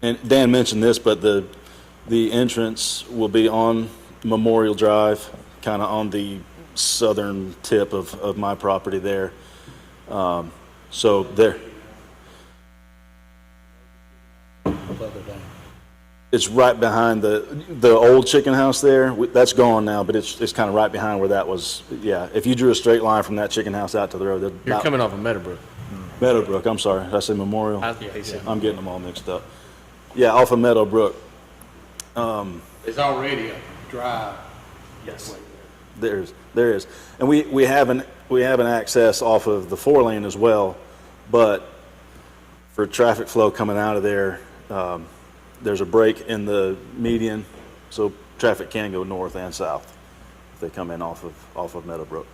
And Dan mentioned this, but the, the entrance will be on Memorial Drive, kind of on the southern tip of, of my property there. Um, So there, further down. it's right behind the, the old chicken house there. We- That's gone now, but it's, it's kind of right behind where that was. Yeah, if you drew a straight line from that chicken house out to the road, that'd You're about- coming off of Meadowbrook. Meadowbrook, I'm sorry, did I say Memorial? I- yeah, yeah. I'm getting them all mixed up. Yeah, off of Meadowbrook, There's already a drive. Yes. There is, there is. And we, we have an, we have an access off of the four lane as well, but for traffic flow coming out of there, um, there's a break in the median, so traffic can go north and south if they come in off of, off of Meadowbrook.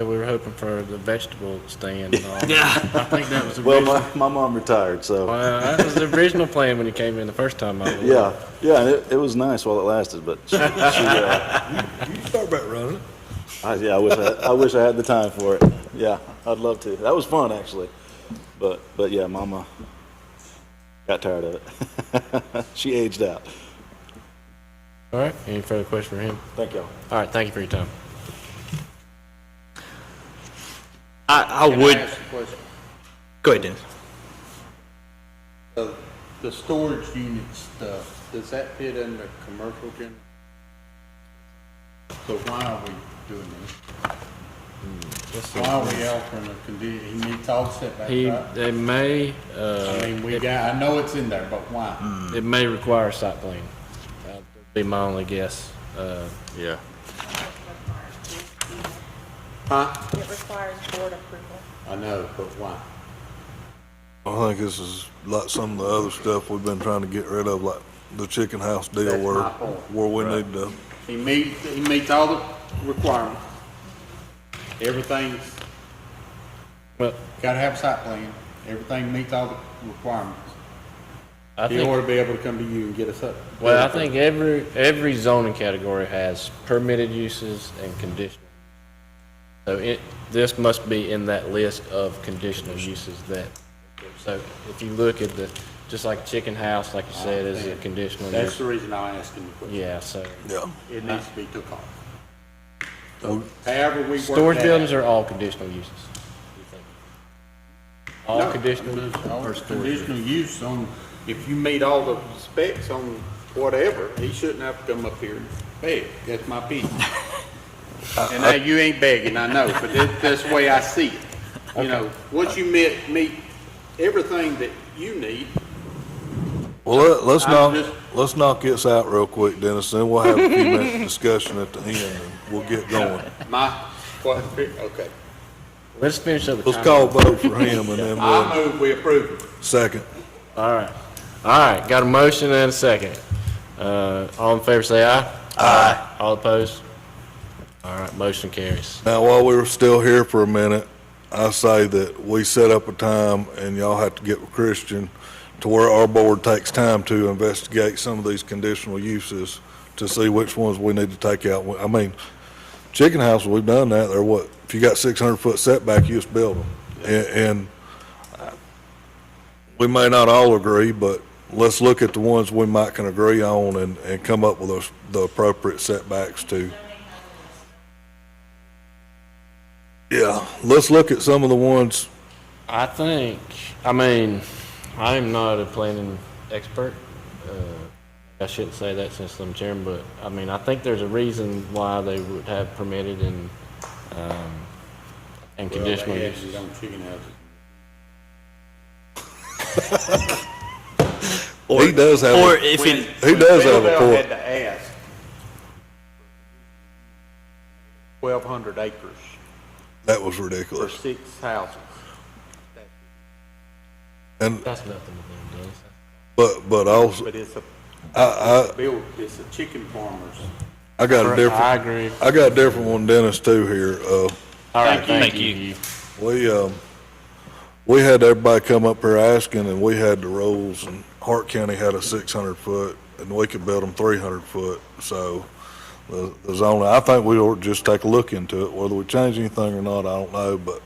We were hoping for the vegetable stand. Yeah. I think that was the Well, original, my, my mom retired, so, well, that was the original plan when you came in the first time. I was. yeah, yeah, and it, it was nice while it lasted, but she, she, uh, You thought about running. I, yeah, I wish I, I wish I had the time for it. Yeah, I'd love to. That was fun actually, but but yeah, Mama got tired of it. she aged out. All right. Any further questions for him? Thank y'all. All right. Thank you for your time. I, I Can I would, ask a question? go ahead, Dennis. The- The storage unit stuff, does that fit in the commercial gen? So why are we doing this? Why are we altering the condition, he needs all setbacks, Hmm, He, right? they may, I uh, mean, we got, I know it's in there, but why? it may require a site plan. That'd Be my only guess. Uh, Yeah. Huh? It requires board approval. I know, but why? I think this is like some of the other stuff we've been trying to get rid of, like the chicken house deal That's where, my point. where we need to, He meets, he meets all the requirements. Everything's well, Gotta have a site plan, everything meets all the requirements, I in think, order to be able to come to you and get us up. well, I think every, every zoning category has permitted uses and conditional. So it, this must be in that list of conditional uses that, so if you look at the, just like chicken house, like you said, is a conditional That's use. the reason I'm asking the question, Yeah, so. yeah. it needs to be took off. So however we work that. Storage buildings out- are all conditional uses. you think? No, All conditional uses. all Conditional use on, if you meet all the specs on whatever, he shouldn't have to come up here and beg, that's my opinion. Uh, And now you ain't begging, I know, but that, that's the way I see it. You know, once you meet, meet everything that you need, Well, let- let's I'm knock, just- let's knock this out real quick, Dennis, then we'll have a few minutes discussion at the end and we'll get going. My, what, okay. Let's finish up the Let's call comments. vote for him and then I we'll, move we approve it. second. All right. All right, got a motion and a second. Uh, all in favor, say aye. Aye. All opposed? All right, motion carries. Now, while we were still here for a minute, I say that we set up a time, and y'all have to get with Christian, to where our board takes time to investigate some of these conditional uses to see which ones we need to take out. I mean, chicken house, we've done that, They're what, if you got six hundred foot setback, you just build them. And, and uh, we may not all agree, but let's look at the ones we might can agree on and, and come up with those, the appropriate setbacks to. Yeah, let's look at some of the ones, I think, I mean, I'm not a planning expert. Uh, I shouldn't say that since I'm chairman, but I mean, I think there's a reason why they would have permitted and, um, and conditional Well, they uses. actually don't chicken houses. he does have, Or a- if it, he does have a Belleville point. had to ask. Twelve hundred acres That was for ridiculous. six houses. And, That's nothing to them, does. but, but also, But it's a, I, build, it's a chicken farmer's. I, I got a I different, agree. I got a different one, Dennis, too, here. Uh, All right, Thank thank you. you. We, um, we had everybody come up here asking, and we had the rules, and Hart County had a six hundred foot, and we could build them three hundred foot, so the, the zoning, I think we ought to just take a look into it, whether we change anything or not, I don't know, but